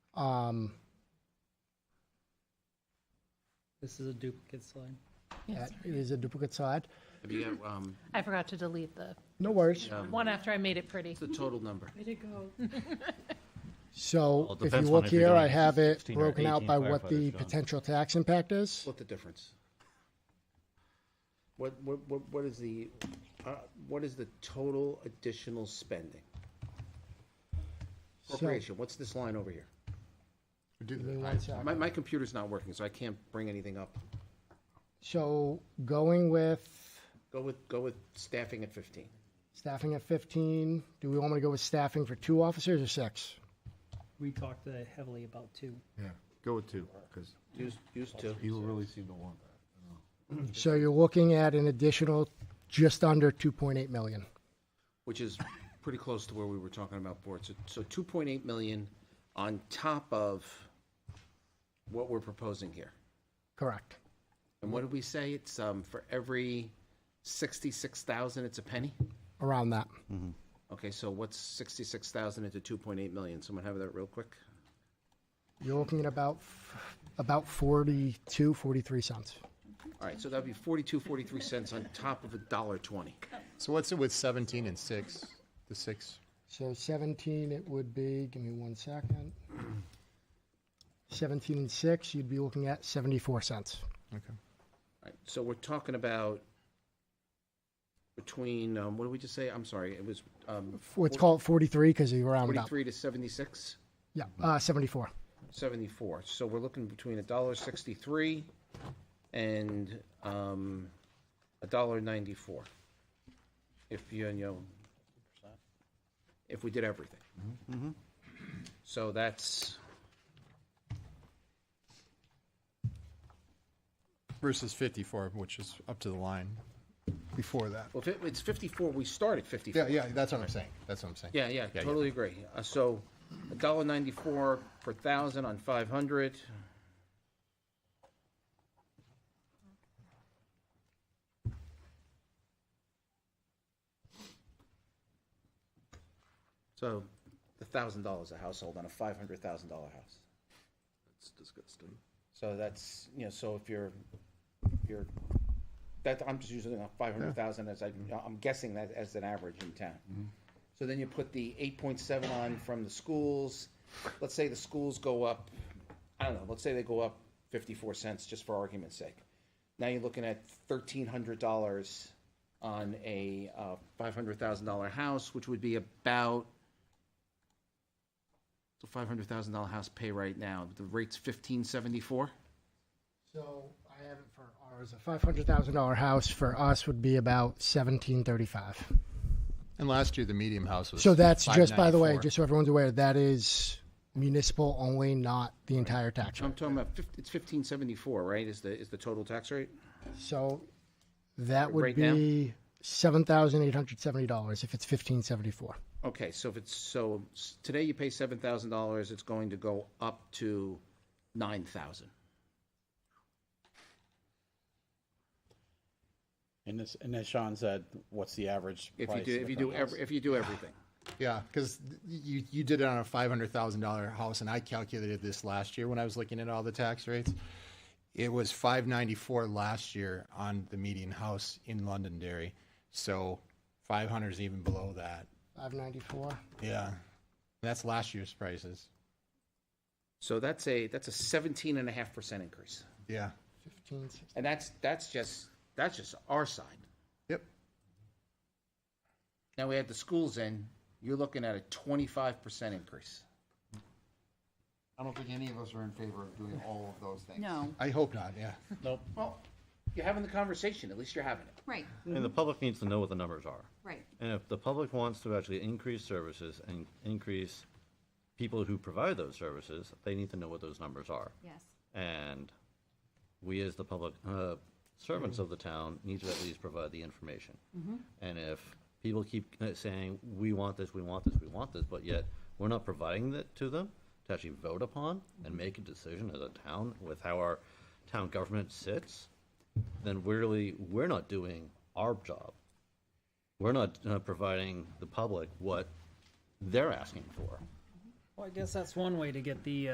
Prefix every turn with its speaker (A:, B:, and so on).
A: Um,
B: This is a duplicate slide.
A: that is a duplicate slide.
C: Have you got, um,
D: I forgot to delete the
A: No worries.
D: one after I made it pretty.
C: the total number?
A: So
E: Well, it
A: if you
E: depends
A: look
E: on if you're
A: here, I
E: doing
A: have it
E: 16 or
A: broken out
E: 18
A: by what
E: firefighters,
A: the
E: John.
A: potential tax impact is.
C: What the difference? What, what, what, what is the, uh, what is the total additional spending? Appropriation, what's this line over here?
A: Give me one sec.
C: My, my computer's not working, so I can't bring anything up.
A: So going with
C: Go with, go with staffing at fifteen.
A: staffing at 15, do we want me to go with staffing for two officers or six?
B: We talked uh, heavily about two.
F: Yeah, go with two, because
C: Use, use two.
F: you really seem to want that.
A: So you're looking at an additional just under 2.8 million.
C: which is pretty close to where we were talking about boards. So- So two point eight million on top of what we're proposing here.
A: Correct.
C: And what did we say? It's, um, for every sixty-six thousand, it's a penny?
A: Around that.
E: Hmm.
C: Okay, so what's sixty-six thousand into two point eight million? Someone have that real quick?
A: You're looking at about f- about 42, 43 cents.
C: All right, so that'd be forty-two, forty-three cents on top of a dollar twenty.
G: So what's it with seventeen and six? The six?
A: So 17, it would be, give me one second. 17 and 6, you'd be looking at 74 cents.
G: Okay.
C: All right, So we're talking about between, um, what did we just say? I'm sorry, it was, um,
A: Let's call it 43 because you rounded up.
C: forty-three to seventy-six?
A: Yeah, uh, 74.
C: 74. So we're looking between a dollar 63 and um, a dollar 94. If you, you know, if we did everything. So that's,
G: Versus fifty-four, which is up to the line before that.
C: well, if it- it's 54, we start at 54.
G: Yeah, yeah, that's what I'm saying. That's what I'm saying.
C: Yeah, yeah,
G: yeah.
C: totally agree. Uh, So a dollar 94 per thousand on 500. So the thousand dollars a household on a five hundred thousand dollar house.
F: It's disgusting.
C: So that's, you know, so if you're, you're, that, I'm just using uh, five hundred thousand as I, I'm guessing that as an average in town. So then you put the eight point seven on from the schools, let's say the schools go up, I don't know, let's say they go up fifty-four cents, just for argument's sake. Now you're looking at thirteen hundred dollars on a, uh, five hundred thousand dollar house, which would be about so five hundred thousand dollar house pay right now, the rate's fifteen seventy-four?
A: So I have it for ours. A $500,000 house for us would be about 1735.
G: And last year, the medium house was.
A: So that's just, by the way,
G: 594.
A: just so everyone's aware, that is municipal only, not the entire tax
C: I'm
A: rate.
C: talking about, fif- it's fifteen seventy-four, right, is the, is the total tax rate?
A: So that would
C: Right now?
A: be $7,870 if it's 1574.
C: Okay, so if it's, so s- today you pay seven thousand dollars, it's going to go up to nine thousand.
H: And as, and as Sean said, what's the average
C: If you
H: price
C: do,
H: of
C: if you
H: the
C: do
H: house?
C: every, if you do everything.
G: Yeah, because you, you did it on a five hundred thousand dollar house, and I calculated this last year when I was looking at all the tax rates. It was five ninety-four last year on the median house in Londonderry, so five hundred is even below that.
A: 594.
G: Yeah, that's last year's prices.
C: So that's a, that's a seventeen and a half percent increase.
G: Yeah.
A: 1560.
C: And that's, that's just, that's just our side.
G: Yep.
C: Now we add the schools in, you're looking at a twenty-five percent increase.
F: I don't think any of us are in favor of doing all of those things.
I: No,
G: I hope not. Yeah.
C: Well, you're having the conversation, at least you're having it.
I: right,
E: And the public needs to know what the numbers are.
I: right.
E: And if the public wants to actually increase services and increase people who provide those services, they need to know what those numbers are.
I: Yes.
E: And we, as the public uh, servants of the town, need to at least provide the information. And if people keep uh, saying, we want this, we want this, we want this, but yet we're not providing that to them to actually vote upon and make a decision as a town with how our town government sits, then really, we're not doing our job. We're not uh, providing the public what they're asking for.
B: Well, I guess that's one way to get the, uh,